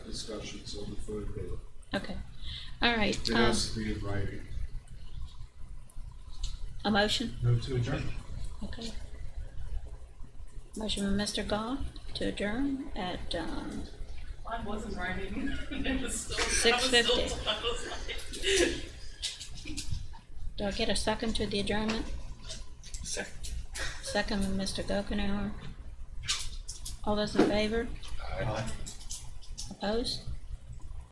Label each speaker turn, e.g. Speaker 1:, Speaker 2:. Speaker 1: discussion, so defer it.
Speaker 2: Okay. All right,
Speaker 1: It
Speaker 2: um,
Speaker 1: has to be in writing.
Speaker 2: um, a motion?
Speaker 3: Move to adjourn.
Speaker 2: Okay. Motion by Mr. Goff to adjourn at, um,
Speaker 4: I wasn't writing. It was still. I was
Speaker 2: 6:50.
Speaker 4: still- I was like-
Speaker 2: do I get a second to the adjournment? Second. Second by Mr. Gokenhour. All those in favor?
Speaker 3: Aye.
Speaker 2: Opposed?